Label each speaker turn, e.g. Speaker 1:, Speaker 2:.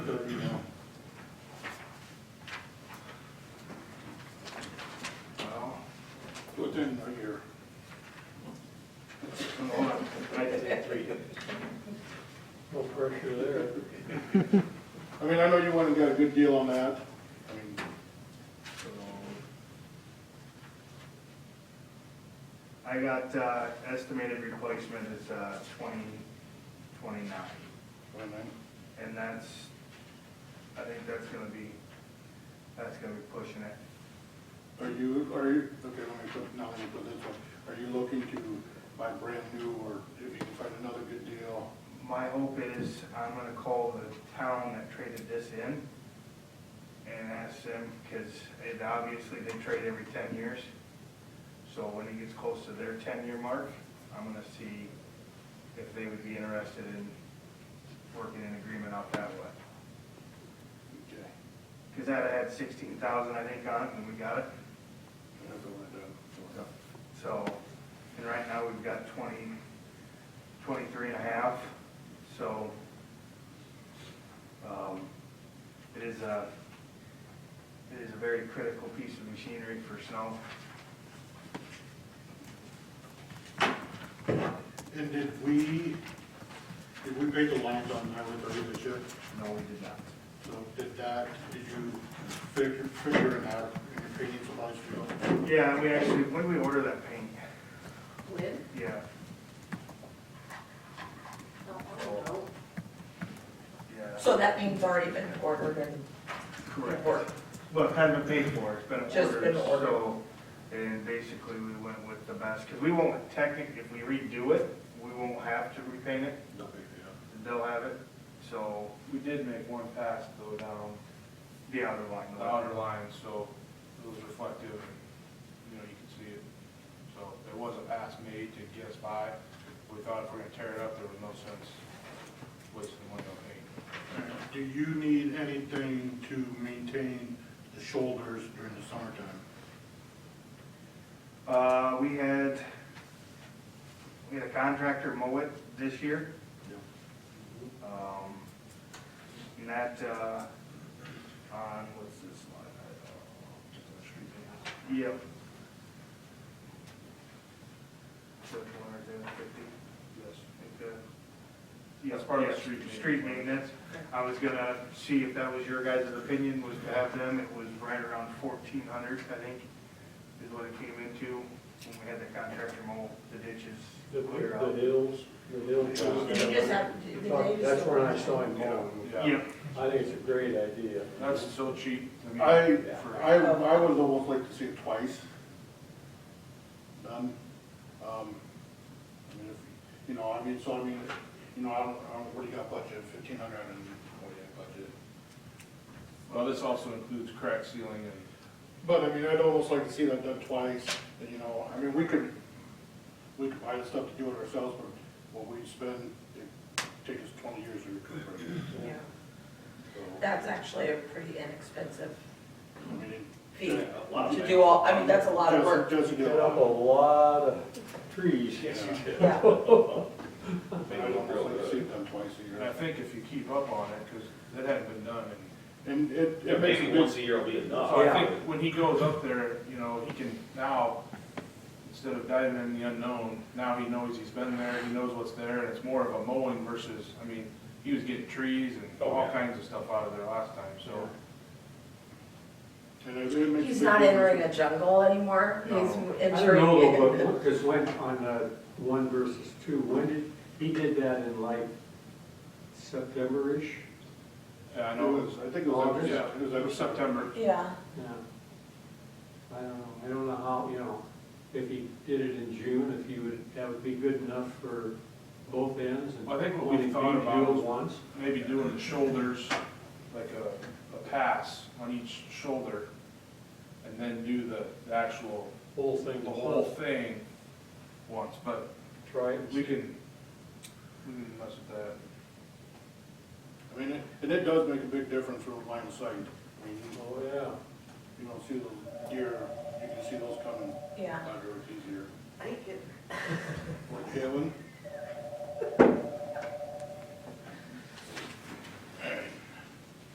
Speaker 1: pressure there.
Speaker 2: I mean, I know you went and got a good deal on that, I mean,
Speaker 1: So,
Speaker 3: I got, uh, estimated replacement is, uh, twenty, twenty-nine,
Speaker 2: and then,
Speaker 3: and that's, I think that's gonna be, that's gonna be pushing it.
Speaker 2: are you, are you, okay, let me put, now let me put this one, are you looking to buy brand new, or if you can find another good deal?
Speaker 3: My hope is I'm gonna call the town that traded this in and ask them, because it, obviously they trade every ten years. So when it gets close to their ten-year mark, I'm gonna see if they would be interested in working an agreement out that way.
Speaker 2: Okay,
Speaker 3: Because that had sixteen thousand, I think, on it, and we got it.
Speaker 2: that's what I done.
Speaker 3: So, and right now we've got twenty, twenty-three and a half, so, um, it is a, it is a very critical piece of machinery for snow.
Speaker 2: And did we, did we pay the lines on Highway thirty this year?
Speaker 3: No, we did not.
Speaker 2: So did that, did you figure, figure it out in your opinion for last year?
Speaker 3: Yeah, we actually, when did we order that paint?
Speaker 4: Lynn?
Speaker 3: Yeah,
Speaker 4: No, I don't know.
Speaker 3: yeah,
Speaker 5: So that means it's already been ordered and
Speaker 3: correct.
Speaker 5: worked.
Speaker 3: Well, it hasn't been paid for, it's been
Speaker 5: Just
Speaker 3: ordered,
Speaker 5: been ordered.
Speaker 3: so, and basically we went with the best, because we won't technically, if we redo it, we won't have to repaint it,
Speaker 2: No big deal.
Speaker 3: they'll have it, so,
Speaker 1: We did make one pass though down
Speaker 3: the outer line.
Speaker 1: the outer line, so it was reflective, and, you know, you could see it. So there was a pass made to get us by. We thought if we're gonna tear it up, there was no sense wasting money on paint.
Speaker 2: Do you need anything to maintain the shoulders during the summertime?
Speaker 3: Uh, we had, we had a contractor mow it this year.
Speaker 2: Yep.
Speaker 3: Um, and that, uh, on, what's this line? Yep. Which one is it, fifty?
Speaker 1: Yes.
Speaker 3: Like, uh, yeah,
Speaker 1: That's part of the
Speaker 3: yeah,
Speaker 1: street
Speaker 3: Street
Speaker 1: maintenance.
Speaker 3: maintenance. I was gonna see if that was your guys' opinion, was to have them, it was right around fourteen hundred, I think, is what it came into when we had the contractor mow the ditches.
Speaker 6: The
Speaker 3: clear out.
Speaker 6: hills, the hills.
Speaker 5: Did you just have, did they just?
Speaker 6: That's when I saw him
Speaker 1: Yeah,
Speaker 6: mowing.
Speaker 1: yeah.
Speaker 3: Yep,
Speaker 6: I think it's a great idea.
Speaker 1: That's so cheap. mean,
Speaker 2: I,
Speaker 1: for-
Speaker 2: I, I would almost like to see it twice. Done. Um, I mean, if, you know, I mean, so I mean, you know, I don't, I don't, what do you got budget, fifteen hundred and what do you got budget?
Speaker 1: Well, this also includes crack sealing and
Speaker 2: But I mean, I'd almost like to see that done twice, and, you know, I mean, we could, we could buy the stuff to do it ourselves, but what we spend, it takes us twenty years to recoup.
Speaker 5: Yeah.
Speaker 2: So,
Speaker 5: That's actually a pretty inexpensive
Speaker 2: I mean, it-
Speaker 5: fee
Speaker 2: Yeah, a lot of
Speaker 5: to do all, I mean, that's a lot of
Speaker 2: just-
Speaker 5: work.
Speaker 2: Just to do
Speaker 6: Cut
Speaker 2: it.
Speaker 6: up a lot of trees.
Speaker 5: Yeah,
Speaker 2: I'd almost like to see it done twice a
Speaker 1: And I
Speaker 2: year.
Speaker 1: think if you keep up on it, because that hadn't been done, and
Speaker 2: And it,
Speaker 7: Yeah,
Speaker 2: it makes a
Speaker 7: maybe once
Speaker 2: big,
Speaker 7: a year will be enough.
Speaker 1: so I think when he goes up there, you know, he can now, instead of diving in the unknown, now he knows he's been there, he knows what's there, and it's more of a mowing versus, I mean, he was getting trees and all kinds of stuff out of there last time, so.
Speaker 2: and it it makes. a
Speaker 5: he's
Speaker 2: big
Speaker 5: not
Speaker 2: difference.
Speaker 5: entering a jungle anymore, he's
Speaker 1: No.
Speaker 6: I
Speaker 5: entering.
Speaker 6: don't know, but, because when, on uh, one versus two, when did, he did that in like September-ish?
Speaker 1: Yeah, I
Speaker 2: I
Speaker 1: know,
Speaker 2: know,
Speaker 1: it
Speaker 2: it
Speaker 1: was-
Speaker 2: was, I think it was,
Speaker 1: yeah,
Speaker 2: yeah, it was
Speaker 1: it was September,
Speaker 5: Yeah,
Speaker 6: Yeah. I don't know, I don't know how, you know, if he did it in June, if he would, that would be good enough for both ends. and
Speaker 1: I think what we
Speaker 6: only
Speaker 1: thought
Speaker 6: to
Speaker 1: about
Speaker 6: Do
Speaker 1: was-
Speaker 6: it once.
Speaker 1: maybe doing the shoulders, like a, a pass on each shoulder, and then do the, the actual,
Speaker 6: whole thing,
Speaker 1: the whole thing once, but
Speaker 6: try it.
Speaker 1: We can, we can mess with that.
Speaker 2: I mean, it- and it does make a big difference for line of sight. I mean,
Speaker 6: Oh, yeah.
Speaker 2: you don't see those deer, you can see those coming
Speaker 5: yeah.
Speaker 2: under, it's easier.
Speaker 4: I think it-
Speaker 2: Kevin?